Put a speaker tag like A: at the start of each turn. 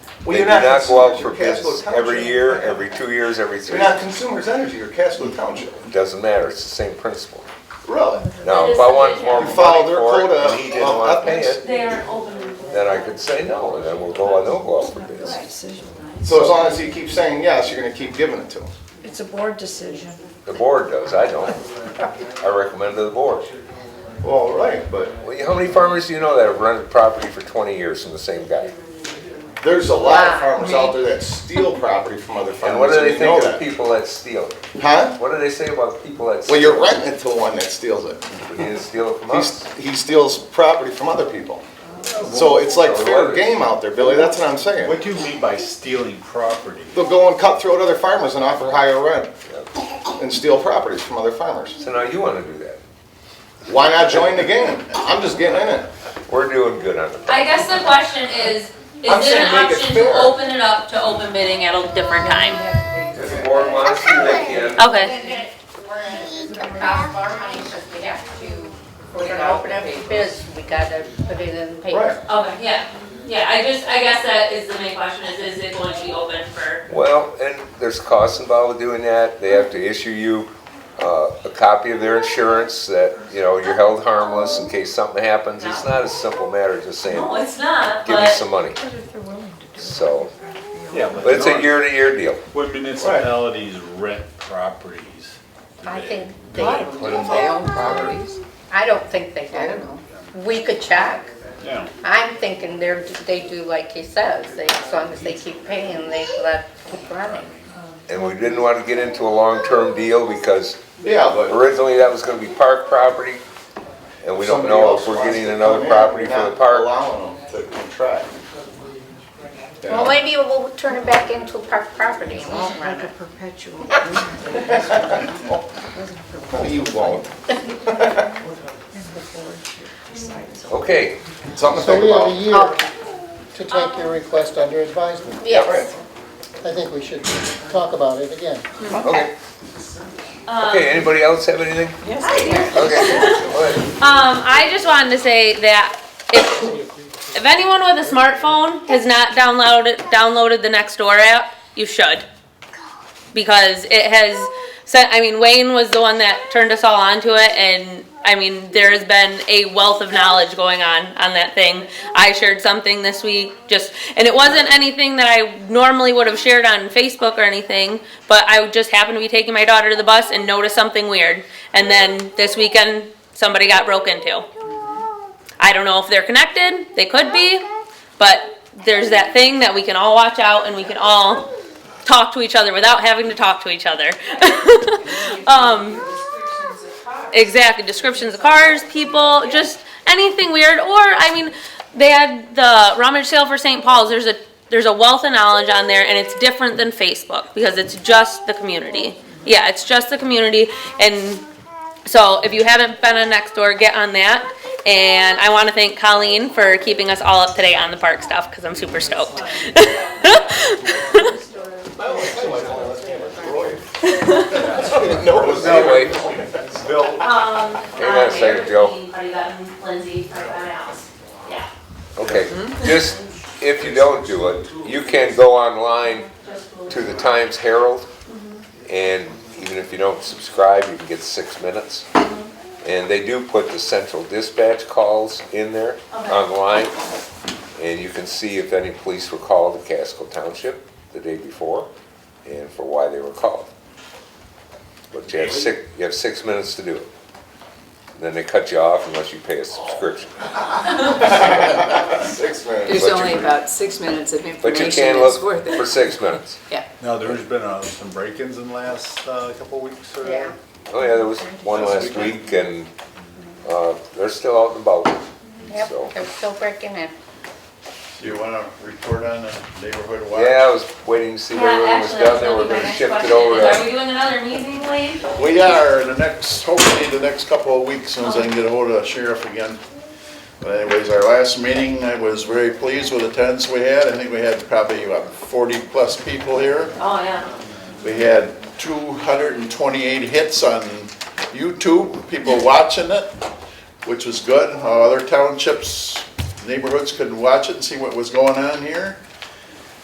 A: Well,
B: They
A: you're
B: do
A: not
B: not go out
A: consumers,
B: for
A: you're Casco
B: bids
A: Township.
B: every year, every two years, every
A: You're
B: three.
A: not consumers energy, you're Casco Township.
B: Doesn't matter, it's the same principle.
A: Really?
B: Now,
C: That
B: if
C: is
B: I
C: the
B: wanted
C: vision.
B: more
C: You
B: money
A: follow their
B: for it
A: quota
B: and he didn't
A: of
B: want to pay
A: ethics.
B: it,
C: They aren't open. to-
B: then I could say no, and then we'll go, I don't go out for bids.
D: decision.
A: So as long as you keep saying yes, you're gonna keep giving it to them.
D: It's a board decision.
B: The board does, I don't. I recommend to the board.
A: Well, right, but
B: Well, How many farmers do you know that have rented property for 20 years from the same guy?
A: there's a lot of farmers out there that steal property from other farmers.
B: And what do
A: you
B: they
A: know
B: think
A: that.
B: of people that steal?
A: Huh?
B: What do they say about people that steal?
A: Well, you're renting it to one that steals it.
B: He didn't steal it from us.
A: He's, he steals property from other people. So it's like fair game out there, Billy, that's what I'm saying.
E: What do you mean by stealing property?
A: They'll go and cut throat other farmers and offer higher rent and steal properties from other farmers.
B: So now you want to do that.
A: Why not join the game? I'm just getting in it.
B: We're doing good on the,
C: I guess the question is,
A: I'm
C: is it
A: saying
C: an
A: make it
C: option to
A: fair.
C: open it up to open bidding at a different time?
B: if the board wants to, they can.
C: Okay.
F: We're gonna open up a biz, we gotta put it in the
A: Right.
F: paper.
C: Okay, yeah, yeah, I just, I guess that is the main question, is, is it going to be open for?
B: Well, and there's costs involved with doing that. They have to issue you uh, a copy of their insurance that, you know, you're held harmless in case something happens. It's not a simple matter of just
C: No,
B: saying,
C: it's not,
B: give me
C: but,
B: some money. So,
E: Yeah,
B: but it's a year-to-year deal.
E: When municipalities rent properties. do
F: I
E: they-
F: think
E: do
F: they,
E: put
F: I
E: them
D: They
E: up?
D: own properties.
F: don't think they do. We could check.
E: Yeah.
F: I'm thinking they're, they do like he says, they, as long as they keep paying, they let, keep running.
B: And we didn't want to get into a long-term deal because
A: Yeah, but
B: originally that was going to be park property. And we don't
A: somebody
B: know if
A: else
B: we're
A: wants
B: getting
A: to
B: another
A: come in,
B: property
A: we're
B: for the
A: not
B: park.
A: Allowing them to contract. You know?
F: Well, maybe we'll turn it back into a park property and we'll run
D: Like a
F: it.
D: perpetual.
A: No, You won't.
B: Okay,
A: Something to
G: So
A: think
G: we have a
A: about.
G: year to take your request under advisement.
F: Yes,
G: I think we should talk about it again.
B: okay.
C: um.
B: Okay, anybody else have anything? Okay, go ahead.
H: Um, I just wanted to say that if, if anyone with a smartphone has not downloaded, downloaded the Nextdoor app, you should. Because it has sent, I mean, Wayne was the one that turned us all onto it and, I mean, there has been a wealth of knowledge going on, on that thing. I shared something this week, just, and it wasn't anything that I normally would have shared on Facebook or anything, but I just happened to be taking my daughter to the bus and noticed something weird. And then this weekend, somebody got broke into. I don't know if they're connected, they could be, but there's that thing that we can all watch out and we can all talk to each other without having to talk to each other. um, exactly, descriptions of cars, people, just anything weird. Or I mean, they had the rummage sale for St. Paul's. There's a there's a wealth of knowledge on there, and it's different than Facebook because it's just the community. Yeah, it's just the community, and so if you haven't been on Nextdoor, get on that. And I want to thank Colleen for keeping us all up to date on the park stuff because I'm super stoked.
A: No, it was that way.
B: Anyway,
C: Um.
B: Hang on a second, Joe.
C: Already gotten Lindsay from my house, yeah.
B: Okay, just, if you don't do it, you can go online to the Times Herald, and even if you don't subscribe, you can get six minutes. And they do put the central dispatch calls in there online, and you can see if any police were called to Casco Township the day before, and for why they were called. But you have six, you have six minutes to do it. Then they cut you off unless you pay a subscription.
A: Six minutes.
D: There's
B: But you-
D: only about six minutes of
B: But you
D: information
B: can
D: that's
B: look
D: worth
B: for
D: it.
B: six minutes.
E: Now, there's been uh, some break-ins in the last uh, couple weeks or?
F: yeah.
B: Oh, yeah, there was one last week, and uh, they're still out and about. So-
F: Yep, they're still breaking in.
E: Do you want to report on the neighborhood watch?
B: Yeah, I was waiting to see
C: Yeah,
B: where everyone was
C: actually, that's
B: down there, we're
C: gonna be my
B: gonna
C: next
B: shift it
C: question,
B: over
C: is Are we
B: to.
C: doing another meeting, Wayne?
E: We are, in the next, hopefully the next couple of weeks, soon as I can get ahold of sheriff again. But anyways, our last meeting, I was very pleased with the attendance we had. I think we had probably about forty-plus people here.
C: Oh, yeah.
E: We had two hundred and twenty-eight hits on YouTube, people watching it, which was good. How Other townships, neighborhoods couldn't watch it and see what was going on here.